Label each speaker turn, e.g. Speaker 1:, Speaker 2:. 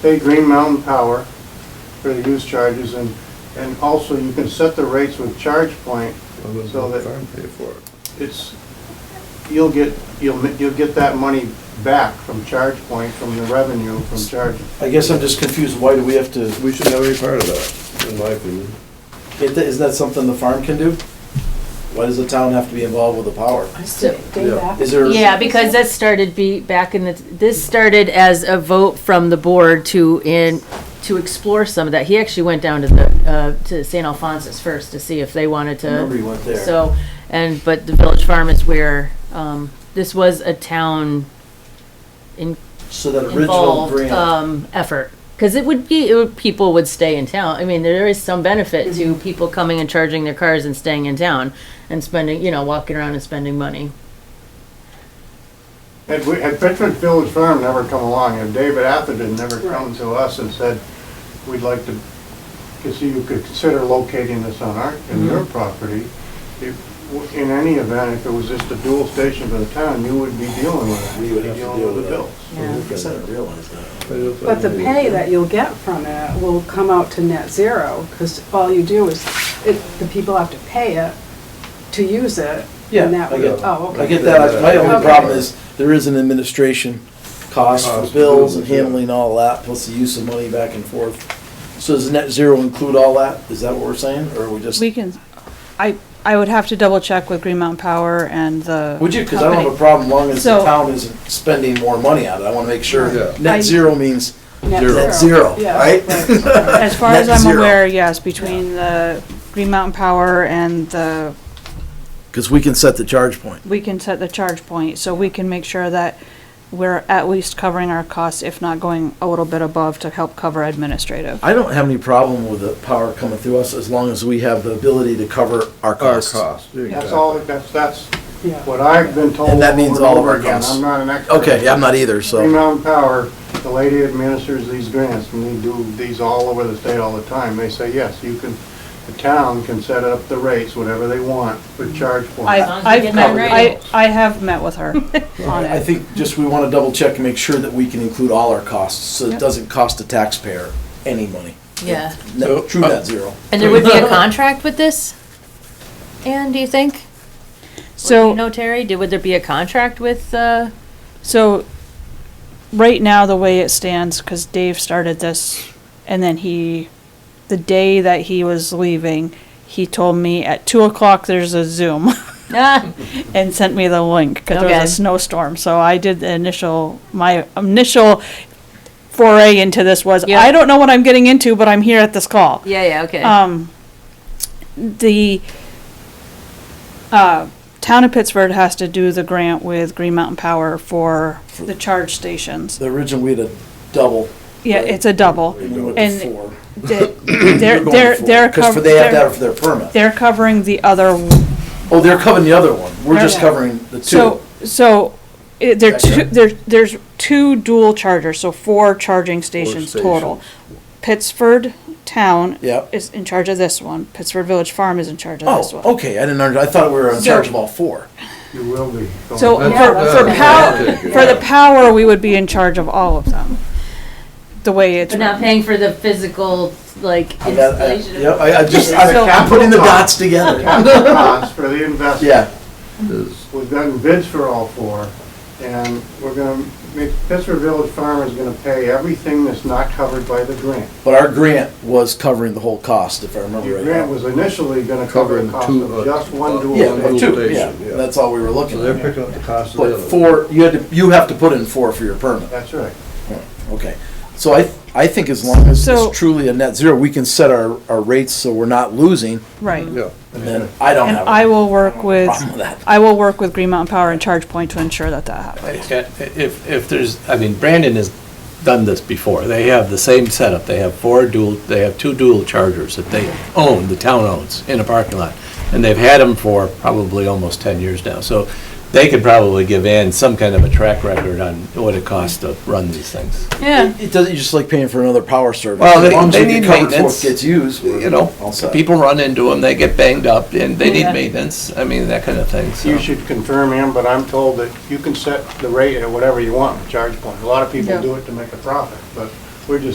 Speaker 1: pay Green Mountain Power for the use charges, and, and also you can set the rates with charge point, so that
Speaker 2: Farm pay for it.
Speaker 1: it's, you'll get, you'll, ma- you'll get that money back from charge point, from the revenue from charge.
Speaker 3: I guess I'm just confused, why do we have to,
Speaker 2: We shouldn't have any part of that, in my opinion.
Speaker 3: it- is that something the farm can do? Why does the town have to be involved with the power? Is there?
Speaker 4: Yeah, because that started be, back in the, this started as a vote from the board to in, to explore some of that. He actually went down to the, uh, to St. Alphonsus first to see if they wanted
Speaker 3: I Remember
Speaker 4: to.
Speaker 3: you went there.
Speaker 4: So, and, but the Village Farm is where, um, this was a town in,
Speaker 3: So that original
Speaker 4: involved,
Speaker 3: grant,
Speaker 4: um, effort. Cause it would be, it would, people would stay in town. I mean, there is some benefit to
Speaker 3: Mm-hmm.
Speaker 4: people coming and charging their cars and staying in town and spending, you know, walking around and spending money.
Speaker 1: Had, we- had Pittsburgh Village Farm never come along, and David Atherton never come to us and said, we'd like to, to see you could consider locating this on our, in your property, if, in any event, if it was just a dual station for the town, you would be dealing with it.
Speaker 3: We would have to
Speaker 1: You'd be
Speaker 3: deal
Speaker 1: dealing with
Speaker 3: with
Speaker 1: the
Speaker 3: it.
Speaker 1: bills.
Speaker 3: I guess I didn't realize that.
Speaker 5: But the pay that you'll get from it will come out to net zero, because all you do is, it, the people have to pay it to use it.
Speaker 3: Yeah,
Speaker 5: and that
Speaker 3: I
Speaker 5: would-
Speaker 3: get-
Speaker 5: Oh,
Speaker 3: I
Speaker 5: okay.
Speaker 3: get that, my only
Speaker 5: Okay.
Speaker 3: problem is, there is an administration cost
Speaker 2: Cost,
Speaker 3: for bills and
Speaker 2: yeah.
Speaker 3: handling all that, plus the use of money back and forth. So does net zero include all that? Is that what we're saying, or are we just?
Speaker 6: We can, I, I would have to double check with Green Mountain Power and the.
Speaker 3: Would you? Because I don't have a
Speaker 6: company.
Speaker 3: problem as long as the
Speaker 6: So-
Speaker 3: town isn't spending more money on it. I want to make
Speaker 2: Yeah.
Speaker 3: sure. Net
Speaker 6: I-
Speaker 3: zero means net zero,
Speaker 5: Yeah,
Speaker 3: right?
Speaker 6: As far
Speaker 3: Net
Speaker 6: as I'm
Speaker 3: zero.
Speaker 6: aware, yes, between the Green Mountain Power and the,
Speaker 3: Because we can set the charge point.
Speaker 6: we can set the charge point, so we can make sure that we're at least covering our costs, if not going a little bit above to help cover administrative.
Speaker 3: I don't have any problem with the power coming through us as long as we have the ability to cover our
Speaker 2: Our
Speaker 3: costs.
Speaker 2: cost,
Speaker 1: That's
Speaker 2: exactly.
Speaker 1: all, that's, that's
Speaker 5: Yeah.
Speaker 1: what I've been told.
Speaker 3: And that means
Speaker 1: over
Speaker 3: all of
Speaker 1: over
Speaker 3: our
Speaker 1: again.
Speaker 3: costs.
Speaker 1: I'm not an expert.
Speaker 3: Okay, yeah, I'm not either,
Speaker 1: Green
Speaker 3: so.
Speaker 1: Mountain Power, the lady administers these grants, and they do these all over the state all the time. They say, yes, you can, the town can set up the rates, whatever they want, with charge point.
Speaker 6: I,
Speaker 4: long as we
Speaker 6: I've
Speaker 4: get
Speaker 6: met,
Speaker 4: that
Speaker 6: I,
Speaker 4: right.
Speaker 6: I have met with her on
Speaker 3: I
Speaker 6: it.
Speaker 3: think just we want to double check and make sure that we can include all our costs so it
Speaker 6: Yep.
Speaker 3: doesn't cost the taxpayer any money.
Speaker 4: Yeah.
Speaker 3: Net- True net zero.
Speaker 4: And there would be a contract with this? Anne, do you think? Or do you
Speaker 6: So,
Speaker 4: know, Terry, did, would there be a contract with, uh,
Speaker 6: so, right now, the way it stands, because Dave started this, and then he, the day that he was leaving, he told me at two o'clock, there's a Zoom,
Speaker 4: ah,
Speaker 6: and sent me the link, because there
Speaker 4: Okay.
Speaker 6: was a snowstorm, so I did the initial, my initial foray into this was,
Speaker 4: Yeah.
Speaker 6: I don't know what I'm getting into, but I'm here at this call.
Speaker 4: yeah, yeah, okay.
Speaker 6: Um, the, uh, town of Pittsford has to do the grant with Green Mountain Power for the charge stations.
Speaker 3: The original, we had a double.
Speaker 6: Yeah, it's a double.
Speaker 3: We went to
Speaker 6: And
Speaker 3: four.
Speaker 6: They-
Speaker 3: We're
Speaker 6: They're,
Speaker 3: going
Speaker 6: they're,
Speaker 3: four,
Speaker 6: they're.
Speaker 3: Because
Speaker 6: cov-
Speaker 3: for- they have to
Speaker 6: they're-
Speaker 3: have it for their permit.
Speaker 6: They're covering the other,
Speaker 3: Oh, they're covering the other one. We're just
Speaker 6: Yeah.
Speaker 3: covering the two.
Speaker 6: so, so, it- there are
Speaker 3: Gotcha.
Speaker 6: two, there, there's two dual chargers, so four charging stations total. Pittsford Town
Speaker 3: Yep.
Speaker 6: is in charge of this one, Pittsford Village Farm is in charge of this one.
Speaker 3: Oh, okay, I didn't under, I thought we were in
Speaker 6: So-
Speaker 3: charge of all four.
Speaker 1: You will be. going
Speaker 6: So
Speaker 2: That's-
Speaker 6: for, for
Speaker 2: that's-
Speaker 6: power,
Speaker 2: that's-
Speaker 6: for the power, we would be in charge of all of them, the way it's
Speaker 4: But not
Speaker 6: written.
Speaker 4: paying for the physical, like,
Speaker 3: I got- I-
Speaker 4: installation of.
Speaker 3: uh, Yep, I, I just, I-
Speaker 6: So-
Speaker 3: I'm putting the dots together.
Speaker 1: Capital costs for the investment.
Speaker 3: Yeah,
Speaker 2: Is-
Speaker 1: We've gotten bids for all four, and we're gonna, make Pittsburgh Village Farm is gonna pay everything that's not covered by the grant.
Speaker 3: but our grant was covering the whole cost, if I remember
Speaker 1: Your
Speaker 3: right.
Speaker 1: grant was initially gonna cover the
Speaker 2: Covering
Speaker 1: cost
Speaker 2: two,
Speaker 1: of
Speaker 2: uh,
Speaker 1: just one dual
Speaker 3: Yeah, but
Speaker 1: station.
Speaker 3: two, yeah,
Speaker 2: Dual station, yeah.
Speaker 3: that's all we were
Speaker 2: So
Speaker 3: looking
Speaker 2: they're
Speaker 3: at.
Speaker 2: picking up the cost of the
Speaker 3: But
Speaker 2: other.
Speaker 3: four, you had to, you have to put in four for your permit,
Speaker 1: That's right.
Speaker 3: okay. So I, I think as long as
Speaker 6: So-
Speaker 3: it's truly a net zero, we can set our, our rates so we're not losing,
Speaker 6: Right.
Speaker 2: Yeah,
Speaker 3: and then I don't
Speaker 6: And
Speaker 3: have
Speaker 6: I
Speaker 3: a
Speaker 6: will work with,
Speaker 3: problem with that.
Speaker 6: I will work with Green Mountain Power and ChargePoint to ensure that that happens.
Speaker 7: Yeah, If, if there's, I mean, Brandon has done this before. They have the same setup. They have four dual, they have two dual chargers that they own, the town owns, in a parking lot. And they've had them for probably almost 10 years now. So they could probably give Ann some kind of a track record on what it costs to run these things.
Speaker 6: Yeah,
Speaker 3: It doesn't, just like paying for another power service.
Speaker 7: Well,
Speaker 3: As
Speaker 7: they-
Speaker 3: long as
Speaker 7: they
Speaker 3: we get
Speaker 7: need
Speaker 3: covered for it
Speaker 7: maintenance,
Speaker 3: Gets used. we're
Speaker 7: You know,
Speaker 3: all set.
Speaker 7: people run into them, they get banged up, and they need
Speaker 6: Yeah.
Speaker 7: maintenance. I mean, that kind of thing, so.
Speaker 1: You should confirm him, but I'm told that you can set the rate at whatever you want, charge point. A lot of people
Speaker 4: Yeah.
Speaker 1: do it to make a profit, but we're just